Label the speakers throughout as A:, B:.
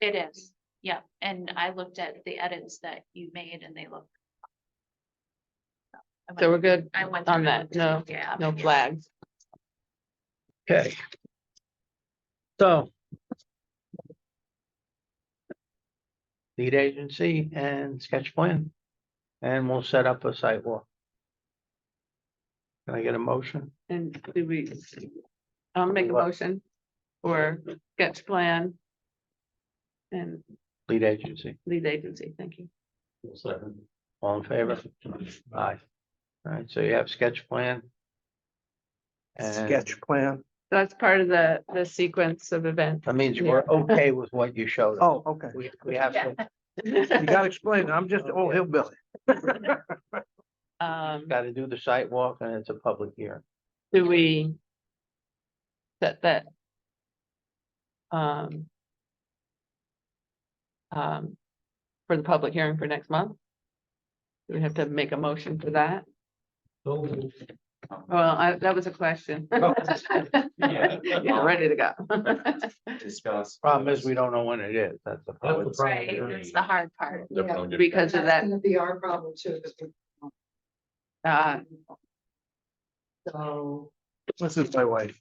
A: It is, yeah, and I looked at the edits that you made and they look. I
B: So we're
A: went-
B: good
A: I went.
B: on
A: through and
B: that. No,
A: looked at- yeah,
B: no
A: yeah.
B: flags.
C: Okay. So. Lead agency and sketch plan. And we'll set up a site walk. Can I get a motion?
B: And do we, I'll make a
C: What?
B: motion for sketch plan. And
C: Lead agency,
B: lead agency, thank you.
C: all in favor? Aye. All right, so you have sketch plan. And
D: sketch plan.
B: That's part of the, the sequence of events.
C: that means we're okay with what you showed. us.
D: Oh, okay.
C: We, we have to,
D: You gotta explain. it. I'm just, oh, hillbilly.
B: Um,
C: gotta do the site walk and it's a public hearing.
B: do we? Set that? Um. Um, for the public hearing for next month? Do we have to make a motion for that? Well, I, that was a question. Yeah, ready to go.
E: Discuss.
C: Problem is, we don't know when it is. That's the problem.
A: Right, that's the hard part.
E: They're
F: Yeah.
E: probably different.
B: Because of that,
F: gonna be our problem too, because we.
B: uh,
F: So.
D: This is my wife.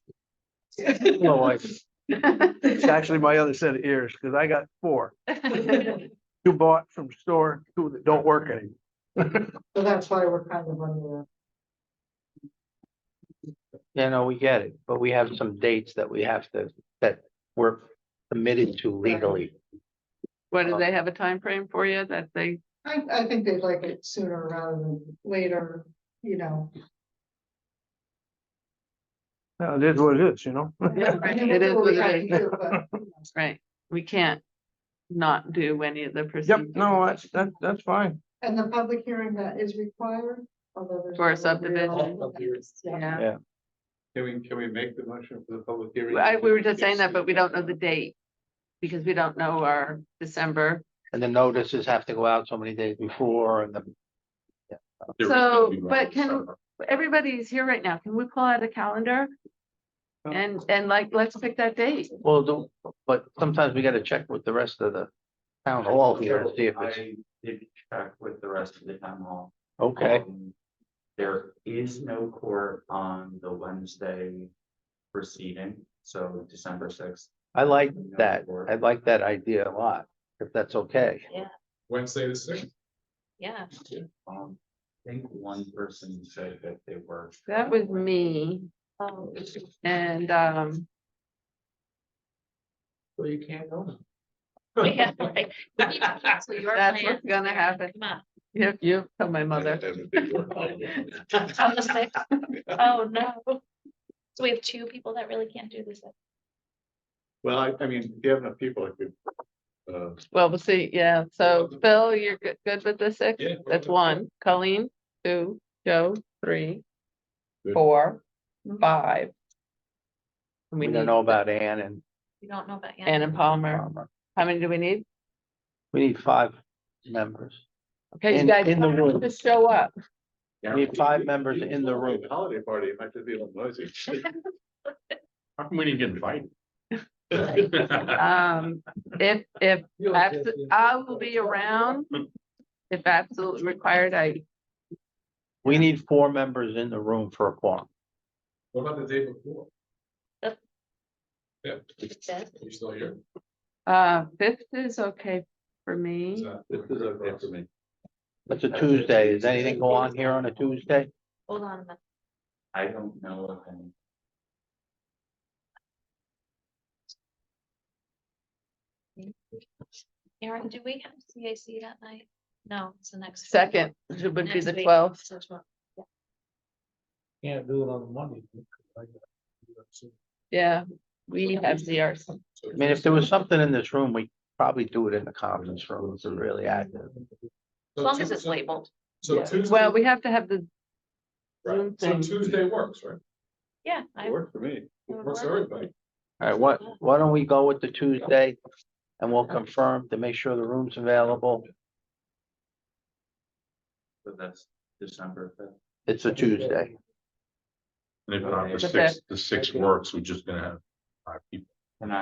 C: No, like,
D: It's actually my other set of ears, because I got four. Two bought from store, two that don't work anymore.
F: So that's why we're kind of under.
C: You know, we get it, but we have some dates that we have to, that we're committed to legally.
B: what,
D: Oh.
B: do they have a time frame for you that they,
F: I, I think they'd like it sooner rather than later, you know.
D: Now, It is what it is, you know?
F: I mean,
B: It is
F: we
B: what it
F: gotta
B: is.
F: do, but, you know,
B: right, we can't not do any of the
D: Yep,
B: procedures.
D: no, that's, that, that's fine.
F: And the public hearing that is required, although there's.
B: For a
F: no real-
B: subdivision.
F: Yeah.
B: Yeah,
C: Yeah.
G: Can we, can we make the motion for the public hearing?
B: I, we were just saying that, but we don't know the date. Because we don't know our December,
C: And the notices have to go out so many days before and the,
E: There is
B: So,
E: gonna be
B: but
E: rounds
B: can-
E: of-
B: everybody's here right now, can we pull out a calendar?
D: Oh.
B: And, and like, let's pick that date,
C: well, do- but sometimes we gotta check with the rest of the town hall here and see if it's,
E: I did check with the rest of the town hall.
C: okay,
E: Um, There is no court on the Wednesday proceeding, so December sixth.
C: I like that. I like that idea a lot, if that's okay.
G: Wednesday the sixth.
A: Yeah,
E: Um, I think one person said that they were.
B: that was me,
A: oh,
B: and, um,
G: Well, you can't go.
A: yeah, right. We need to cancel your
B: That's
A: plan.
B: what's gonna happen.
A: Come on.
B: you, you, tell my mother,
A: On the sixth? Oh, no. So we have two people that really can't do this.
G: Well, I, I mean, if you have enough people, I could. uh,
B: well, we'll see, yeah, so Phil, you're good, good with the six?
G: Yeah.
B: That's one, Colleen, two, Joe, three,
G: Good.
B: four,
A: Mm-hmm.
B: five. And
C: We
B: need
C: don't know about Ann and
A: We don't know about.
B: Ann and Palmer,
C: Palmer.
B: how many do we need?
C: We need five members.
B: Okay, you
C: In-
B: guys,
C: in the
B: tell them
C: room.
B: to show up,
C: We need five members in the room.
G: Holiday party, it might just be a little noisy. How come we didn't get invited?
B: um, if, if, abso- I will be around. If absolutely required, I,
C: We need four members in the room for a quorum.
G: What about the day before?
A: The-
G: Yeah,
A: Fifth.
G: you still here?
B: uh, fifth is okay for
G: Is
B: me,
G: that- This is okay for me.
C: It's a Tuesday. Does anything go on here on a Tuesday?
A: Hold on a minute.
E: I don't know of any.
A: Aaron, do we have CAC that night? No, it's the next. week.
B: second should- would be
A: Next
B: the
A: week.
B: twelfth.
A: So it's what-
G: Can't do it on Monday.
B: Yeah, we have ZRC.
C: I mean, if there was something in this room, we probably do it in the conference room. It's really active.
A: As long as it's labeled.
G: So Tuesday.
B: Well, we have to have the,
G: Right, so
B: Zoom thing.
G: Tuesday works, right?
A: Yeah, I,
G: It worked for me. It
A: would
G: works for
A: work.
G: everybody.
C: All right, what, why don't we go with the Tuesday? And we'll confirm to make sure the room's available.
E: So that's December fifth.
C: It's a Tuesday.
H: And if not, the
B: The
H: six, the six works, we're just gonna have five people.